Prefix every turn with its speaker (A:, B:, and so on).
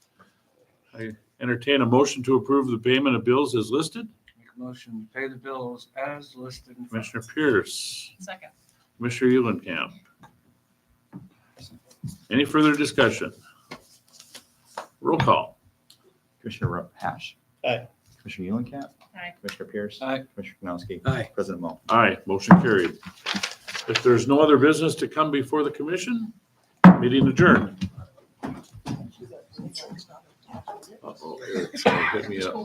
A: I entertain a motion to approve the payment of bills as listed.
B: Make a motion to pay the bills as listed. in front
A: Commissioner
B: of us.
A: Pierce,
C: Second.
A: Commissioner Eulenkamp. Any further discussion? Roll call.
D: Commissioner Ro- Hash.
E: Aye.
D: Commissioner Eulenkamp.
C: Aye.
D: Commissioner Pierce.
B: Aye.
D: Commissioner Kanowski.
E: Aye.
D: President Mo.
A: Aye, motion carried. If there's no other business to come before the commission, meeting adjourned. Uh-oh, Eric's gonna hit me up.